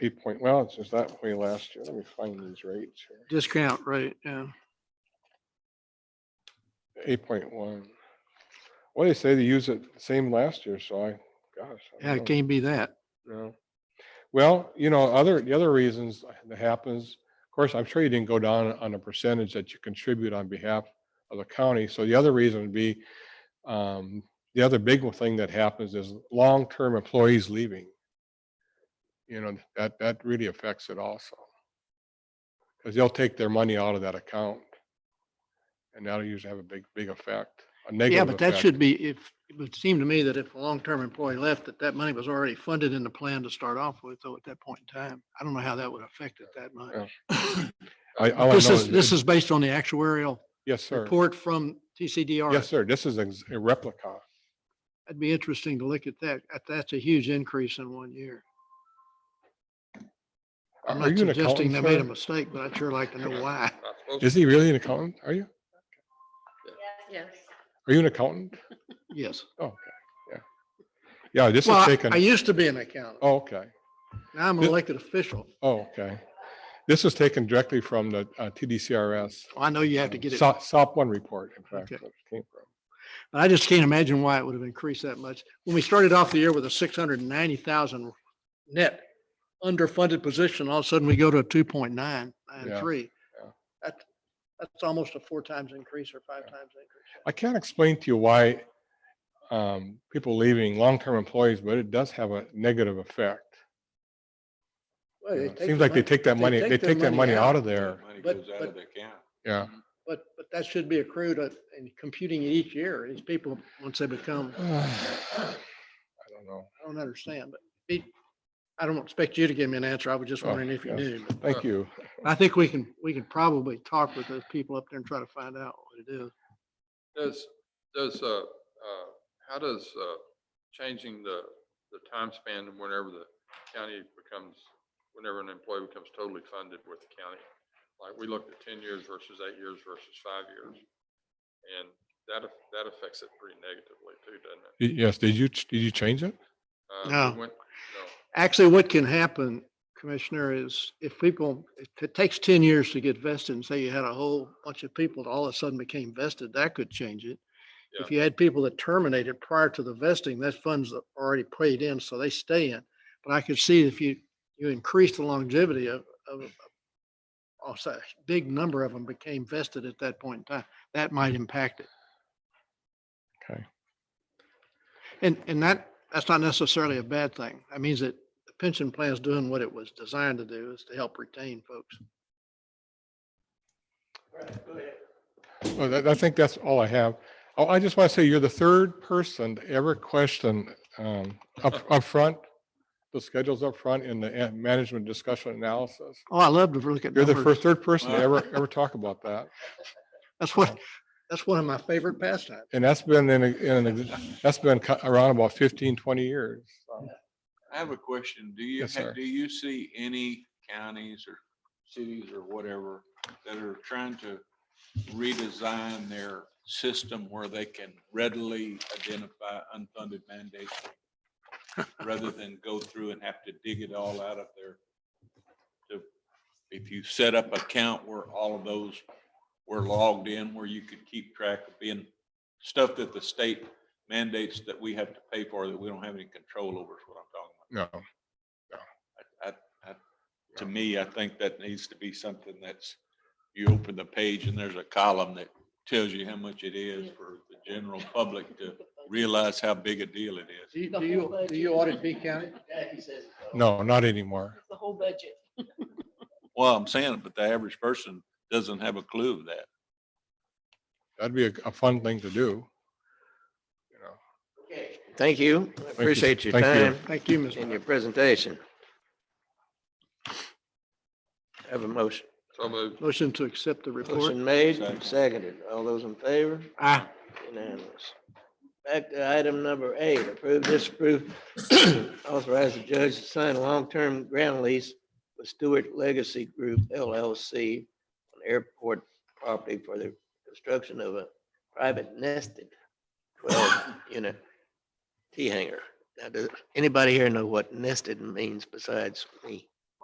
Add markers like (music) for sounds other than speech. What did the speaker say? eight point, well, it's just that way last year. Let me find these rates here. Discount, right, yeah. Eight point one. Well, they say they use it same last year, so I, gosh. I Yeah, don't it can't be that. know. Well, you know, other, the other reasons that happens, of course, I'm sure you didn't go down on the percentage that you contribute on behalf of the county. So the other reason would be, um, the other big thing that happens is long-term employees leaving. You know, that, that really affects it also. Because they'll take their money out of that account. And that'll usually have a big, big effect, a negative Yeah, but that effect. should be, if, it would seem to me that if a long-term employee left, that that money was already funded in the plan to start off with, though, at that point in time. I don't know how that would affect it that Yeah. much. (laughs) I, all I know This is, is, this is based on the actuarial yes, sir. report from TCDR. Yes, sir. This is ex- a replica. It'd be interesting to look at that. That- That's a huge increase in one year. I'm Are not you an suggesting they accountant, made a sir? mistake, but I'd sure like to know why. (laughs) Is he really an accountant? Are you? Yes. Are you an accountant? Yes. Oh, okay, yeah. Yeah, this Well, is I- I taken, used to be an accountant. oh, okay, Now I'm an This- elected official. oh, okay. This is taken directly from the uh, TDCRS. I know you have to get it. SOP SOP one report, in fact. Okay. that it came from. I just can't imagine why it would have increased that much. When we started off the year with a six hundred and ninety thousand net underfunded position, all of a sudden we go to a two point nine nine three. Yeah, yeah. That, that's almost a four times increase or five times increase. I can't explain to you why um, people leaving, long-term employees, but it does have a negative effect. Well, you they know. It take Seems the like they money- take that money, they their take that money out of there, Money But- goes out but- of the account. yeah. (sighs) But, but that should be accrued at- in computing it each year. These people, once they become, I don't know. I don't understand, but it, I don't expect you to give me an answer. I was just Oh, wondering if you yeah. knew. but Thank you. I think we can, we can probably talk with those people up there and try to find out what it is. Does, does, uh, uh, how does, uh, changing the, the time span and whenever the county becomes, whenever an employee becomes totally funded with the county? Like, we looked at ten years versus eight years versus five years. And that, aff- that affects it pretty negatively too, doesn't it? Y- Yes, did you, ch- did you change it? Uh, we No. went- No. Actually, what can happen, Commissioner, is if people, if it takes ten years to get vested and say you had a whole bunch of people that all of a sudden became vested, that could change it. If you had people that terminated prior to the vesting, that funds are already paid in, so they stay in. But I could see if you, you increase the longevity of, of, of- also, a big number of them became vested at that point in time, that might impact it. Okay. And, and that, that's not necessarily a bad thing. That means that the pension plan's doing what it was designed to do is to help retain folks. Well, that, I think that's all I have. Oh, I just want to say you're the third person to ever question um, up upfront, the schedules up front in the an- management discussion analysis. Oh, I love to look at You're the numbers. first, third person to Wow. ever, ever talk about that. That's what, that's one of my favorite pastimes. And that's been in, a- in, an ex- that's been co- around about 15, 20 years. I have a question. Do you, Yes, ha- sir. do you see any counties or cities or whatever that are trying to redesign their system where they can readily identify unfunded (laughs) mandates? Rather than go through and have to dig it all out of their, to- if you set up a count where all of those were logged in, where you could keep track of being stuff that the state mandates that we have to pay for that we don't have any control over is what I'm talking about. No. I, I, I, to me, I think that needs to be something that's, you open the page and there's a column that tells you how much it is for the general public to realize how big a deal it is. Do you, do you, do you audit B County? No, not anymore. The whole budget. Well, I'm saying it, but the average person doesn't have a clue of that. That'd be a, a fun thing to do. You know. Thank you. I you. Appreciate your Thank you. time Thank you, Ms. and Miller. your presentation. Have a motion. So moved. Motion to accept the report. Motion made, Second. seconded. All those in favor? Ah, Unanimous. Back to item number eight, approve, disapprove, (clears throat) authorize the judge to sign a long-term ground lease with Stewart Legacy Group LLC on airport property for the construction of a private nested twelve-unit T hangar. Now, does anybody here know what nested means besides me?